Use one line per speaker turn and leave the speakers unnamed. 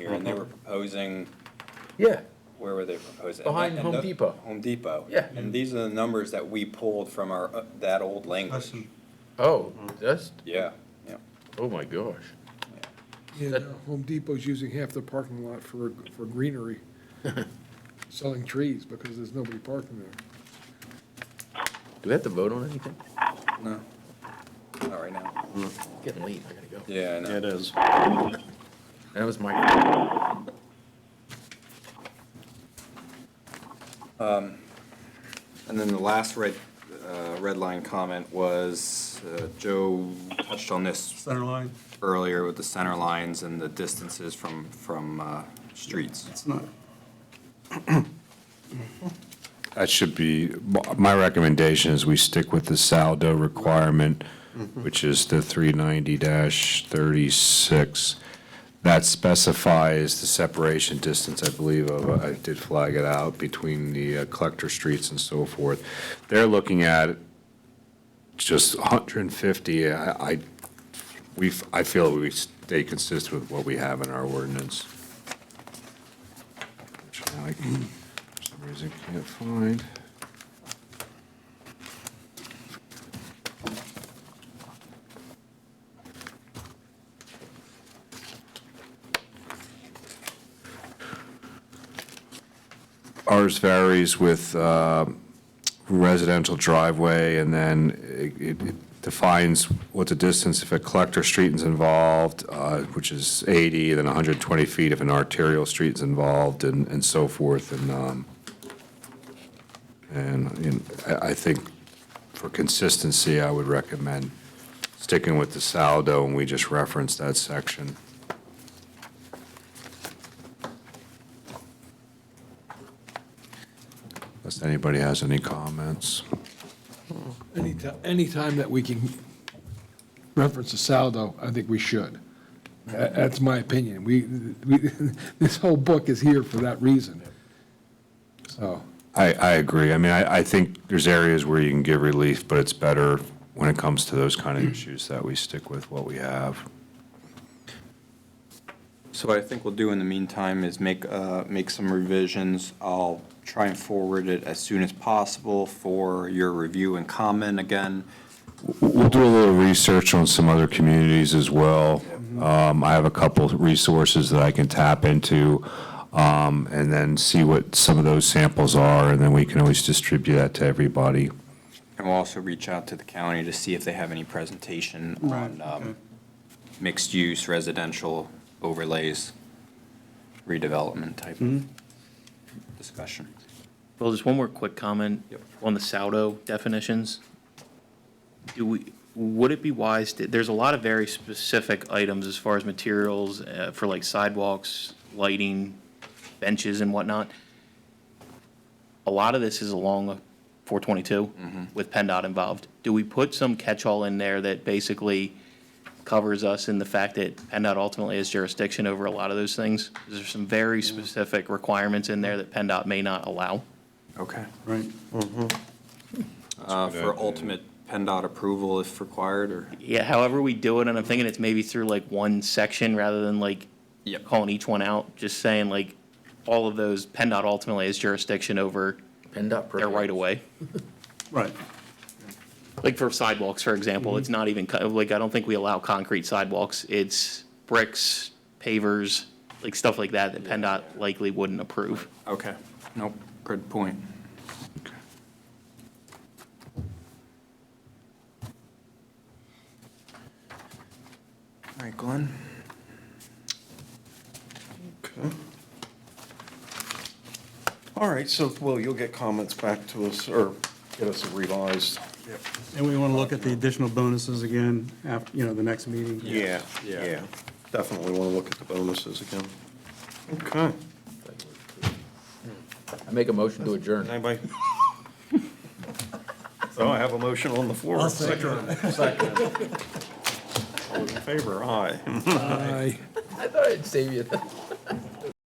And they were proposing,
Yeah,
where were they proposing?
Behind
And
Home
the-
Depot.
Home Depot.
Yeah.
And these are the numbers that we pulled from our, uh, that old language.
Listen,
oh, that's,
Yeah, yeah.
oh my gosh.
And uh, Home Depot's using half the parking lot for, for greenery, selling trees because there's nobody parking there.
Do we have to vote on anything?
No, not right now.
Getting late, I gotta go.
Yeah, I know.
It is.
That was my,
And then the last red, uh, red line comment was, uh, Joe touched on this
center line,
earlier with the center lines and the distances from, from, uh, streets.
it's not,
That should be, my recommendation is we stick with the saldo requirement, which is the 390-36. That specifies the separation distance, I believe, of, I did flag it out, between the uh, collector streets and so forth. They're looking at just 150. I, I- we, I feel we stay consistent with what we have in our ordinance. Which I for some reason can't find. Ours varies with uh, residential driveway, and then it- it it defines what the distance if a collector street is involved, uh, which is 80, then 120 feet if an arterial street is involved, and and so forth, and, um, and you know, I I think for consistency, I would recommend sticking with the saldo, and we just reference that section. Unless anybody has any comments.
Anytime, anytime that we can reference a saldo, I think we should. Tha- That's my opinion. We, we, this whole book is here for that reason. So,
I, I agree. I mean, I, I think there's areas where you can give relief, but it's better when it comes to those kind of issues that we stick with what we have.
So what I think we'll do in the meantime is make, uh, make some revisions. I'll try and forward it as soon as possible for your review and comment again.
We'll do a little research on some other communities as well. Um, I have a couple of resources that I can tap into, um, and then see what some of those samples are, and then we can always distribute that to everybody.
And we'll also reach out to the county to see if they have any presentation on um, mixed-use residential overlays, redevelopment type of discussion.
Well, just one more quick comment on the saldo definitions. Do we, would it be wise, to- there's a lot of very specific items as far as materials uh, for like sidewalks, lighting, benches and whatnot. A lot of this is along 422 with PennDOT involved. Do we put some catch-all in there that basically covers us in the fact that PennDOT ultimately has jurisdiction over a lot of those things? There's some very specific requirements in there that PennDOT may not allow.
Okay. Uh,
right,
For ultimate PennDOT approval if required, or?
Yeah, however we do it, and I'm thinking it's maybe through like one section rather than like
Yep.
calling each one out, just saying like all of those, PennDOT ultimately has jurisdiction over
PennDOT.
their right of way.
right.
Like for sidewalks, for example, it's not even, co- like, I don't think we allow concrete sidewalks. It's bricks, pavers, like stuff like that that PennDOT likely wouldn't approve.
Okay, nope, good point. All right, Glenn?
All right, so, Will, you'll get comments back to us, or get us a revised.
And we want to look at the additional bonuses again, after, you know, the next meeting.
Yeah. Definitely want to look at the bonuses again. Okay.
I make a motion to adjourn.
Anybody? So I have a motion on the floor. Second. All those in favor, aye.
I,
I thought I'd save you.